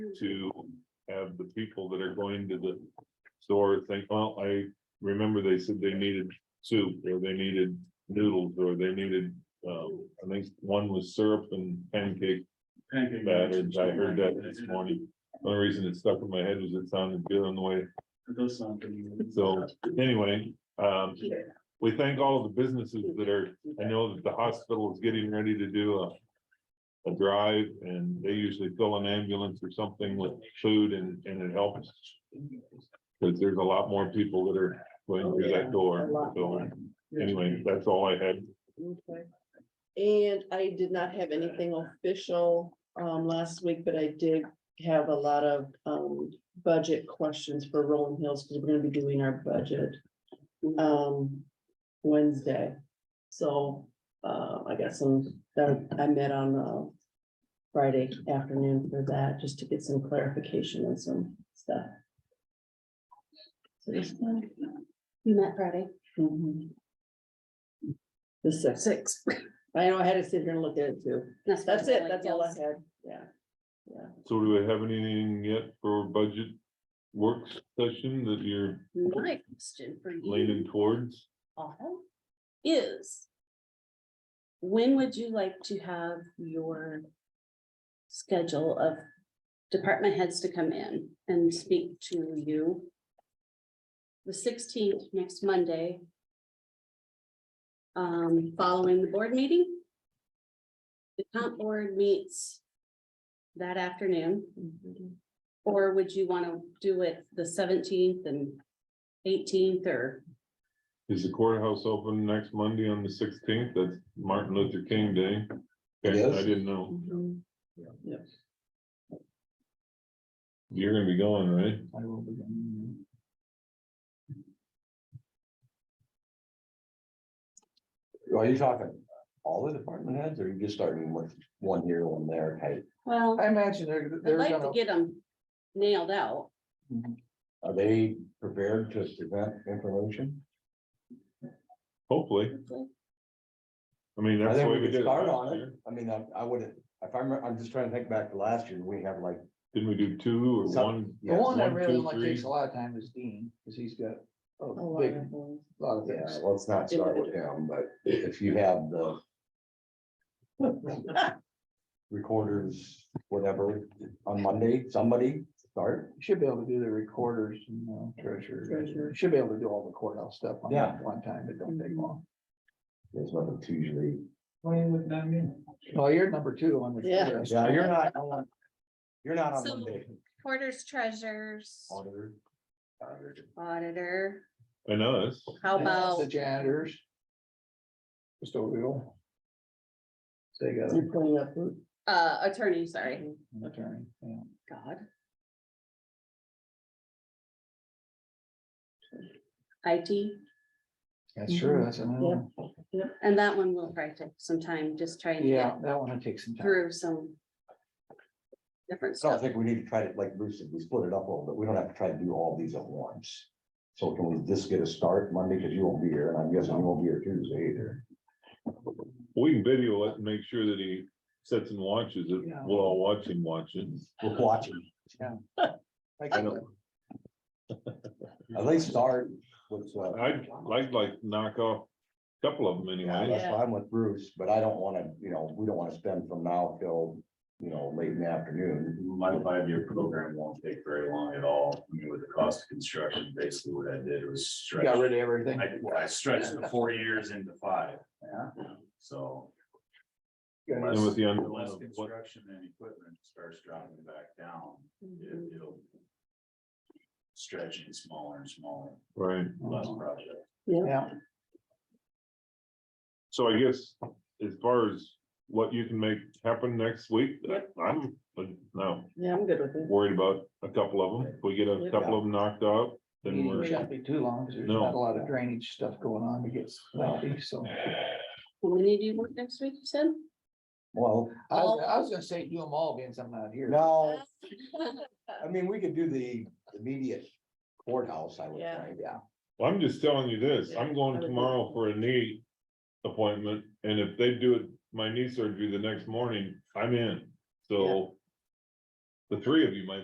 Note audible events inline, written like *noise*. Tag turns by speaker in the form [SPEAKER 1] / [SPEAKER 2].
[SPEAKER 1] to have the people that are going to the store think, well, I remember they said they needed soup, or they needed noodles, or they needed, um, I think one was syrup and pancake
[SPEAKER 2] Pancake
[SPEAKER 1] batter,
[SPEAKER 2] batter.
[SPEAKER 1] I heard that this morning. The Only reason it stuck in my head was it sounded good on the way
[SPEAKER 2] It does sound pretty good.
[SPEAKER 1] So anyway, um, we thank all of the businesses that are, I know that the hospital is getting ready to do a. A drive and they usually fill an ambulance or something with food and, and it helps. Cause there's a lot more people that are going through that door. So anyway, that's all I had.
[SPEAKER 3] Okay. And I did not have anything official um last week, but I did have a lot of um budget questions for Rolling Hills because we're gonna be doing our budget um Wednesday. So uh I got some, that I met on uh Friday afternoon for that, just to get some clarification on some stuff. So this one.
[SPEAKER 4] You met Friday.
[SPEAKER 3] mhm. The sixth.
[SPEAKER 4] Six.
[SPEAKER 3] I know, I had to sit here and look at it too. That's it, that's all I had, yeah.
[SPEAKER 1] So do we have anything yet for budget work session that you're
[SPEAKER 4] My question for you
[SPEAKER 1] leaning towards?
[SPEAKER 4] all is. When would you like to have your schedule of department heads to come in and speak to you? The sixteenth, next Monday. Um, following the board meeting. The comp board meets that afternoon.
[SPEAKER 3] Mm-hmm,
[SPEAKER 4] Or would you want to do it the seventeenth and eighteenth or,
[SPEAKER 1] Is the courthouse open next Monday on the sixteenth? That's Martin Luther King Day.
[SPEAKER 5] It
[SPEAKER 1] Okay, I
[SPEAKER 5] is?
[SPEAKER 1] didn't know.
[SPEAKER 3] Mhm.
[SPEAKER 1] You're gonna be going, right?
[SPEAKER 2] I will be gone.
[SPEAKER 5] Are you talking all the department heads or are you just starting with one here, one there type?
[SPEAKER 4] well,
[SPEAKER 6] I imagine they're,
[SPEAKER 4] I'd
[SPEAKER 6] they're
[SPEAKER 4] like to
[SPEAKER 6] gonna,
[SPEAKER 4] get them nailed out.
[SPEAKER 5] Are they prepared to present information?
[SPEAKER 1] Hopefully. I mean,
[SPEAKER 5] I
[SPEAKER 1] that's the way
[SPEAKER 5] think
[SPEAKER 1] we
[SPEAKER 5] we
[SPEAKER 1] did
[SPEAKER 5] could
[SPEAKER 1] it
[SPEAKER 5] start
[SPEAKER 1] last
[SPEAKER 5] on it.
[SPEAKER 1] year.
[SPEAKER 5] I mean, I, I wouldn't, if I'm, I'm just trying to think back to last year, we have like.
[SPEAKER 1] Didn't we do two or
[SPEAKER 5] Some-
[SPEAKER 1] one?
[SPEAKER 6] the one that
[SPEAKER 1] One,
[SPEAKER 6] really
[SPEAKER 1] two,
[SPEAKER 6] like
[SPEAKER 1] three.
[SPEAKER 6] takes a lot of time is Dean, cause he's got
[SPEAKER 3] A
[SPEAKER 6] a
[SPEAKER 3] lot
[SPEAKER 6] big,
[SPEAKER 3] of things.
[SPEAKER 6] lot of
[SPEAKER 5] Yeah,
[SPEAKER 6] things.
[SPEAKER 5] let's not start with him, but i- if you have the. *laughs* Recorders, whatever, on Monday, somebody start,
[SPEAKER 6] Should be able to do the recorders and uh, treasurer,
[SPEAKER 3] Treasurer.
[SPEAKER 6] should be able to do all the courthouse stuff on
[SPEAKER 5] Yeah.
[SPEAKER 6] one time, it don't
[SPEAKER 4] Mm-hmm.
[SPEAKER 6] take long.
[SPEAKER 5] there's nothing to usually.
[SPEAKER 6] Oh, you're number two on the.
[SPEAKER 3] Yeah.
[SPEAKER 6] courthouse.
[SPEAKER 5] Yeah, you're not, on- you're not on
[SPEAKER 4] So-
[SPEAKER 5] Monday.
[SPEAKER 4] Porters, treasures,
[SPEAKER 5] Auditor. Auditor.
[SPEAKER 4] auditor,
[SPEAKER 1] And us,
[SPEAKER 4] how
[SPEAKER 6] The
[SPEAKER 4] about,
[SPEAKER 6] janitors. Custodial. So you got
[SPEAKER 3] You're pulling up. who-
[SPEAKER 4] uh, attorney, sorry,
[SPEAKER 6] an attorney, yeah.
[SPEAKER 4] God. IT,
[SPEAKER 6] That's true, that's another one.
[SPEAKER 4] and that one will probably take some time, just trying to
[SPEAKER 6] Yeah,
[SPEAKER 4] get
[SPEAKER 6] that one would take some time.
[SPEAKER 4] through some different
[SPEAKER 5] I don't
[SPEAKER 4] stuff.
[SPEAKER 5] think we need to try to, like Bruce said, we split it up a little bit. We don't have to try to do all these at once. So can we just get a start Monday? Cause you won't be here and I'm guessing you won't be here Tuesday either.
[SPEAKER 1] we can video it and make sure that he sits and watches it.
[SPEAKER 6] Yeah.
[SPEAKER 1] We'll all watch him watch it.
[SPEAKER 5] We're watching.
[SPEAKER 6] Like,
[SPEAKER 1] I know.
[SPEAKER 5] At least start with, uh,
[SPEAKER 1] I'd, I'd like to knock off a couple of them
[SPEAKER 5] yeah,
[SPEAKER 1] anyway.
[SPEAKER 5] that's why I'm with Bruce, but I don't wanna, you know, we don't wanna spend from now till, you know, late in the afternoon.
[SPEAKER 7] my five-year program won't take very long at all. I mean, with the cost of construction, basically what I did was
[SPEAKER 6] You
[SPEAKER 7] stretch.
[SPEAKER 6] got rid of everything.
[SPEAKER 7] I, I stretched the four years into five, so.
[SPEAKER 6] Good.
[SPEAKER 1] And with the un-
[SPEAKER 7] Less
[SPEAKER 1] what-
[SPEAKER 7] construction and equipment starts dropping back down, it- it'll. Stretching smaller and smaller,
[SPEAKER 1] Right,
[SPEAKER 7] less
[SPEAKER 6] Mm-hmm.
[SPEAKER 7] project.
[SPEAKER 6] Yeah,
[SPEAKER 1] so I guess as far as what you can make happen next week, uh,
[SPEAKER 3] Yep.
[SPEAKER 1] I'm, but no,
[SPEAKER 3] Yeah, I'm good with it.
[SPEAKER 1] worried about a couple of them. If we get a couple of them knocked out, then
[SPEAKER 6] meeting
[SPEAKER 1] we're.
[SPEAKER 6] shouldn't be too long, because there's
[SPEAKER 1] No.
[SPEAKER 6] not a lot of drainage stuff going on to get lengthy, so.
[SPEAKER 4] When do you work next week, you said?
[SPEAKER 5] Well,
[SPEAKER 6] I was, I was gonna say do them all, being something out
[SPEAKER 4] *laughs*
[SPEAKER 6] here.
[SPEAKER 5] no, I mean, we could do the immediate courthouse, I would
[SPEAKER 3] Yeah.
[SPEAKER 5] think.
[SPEAKER 6] Yeah,
[SPEAKER 1] Well, I'm just telling you this, I'm going tomorrow for a knee appointment, and if they do it, my knee surgery the next morning, I'm in, so. The three of you might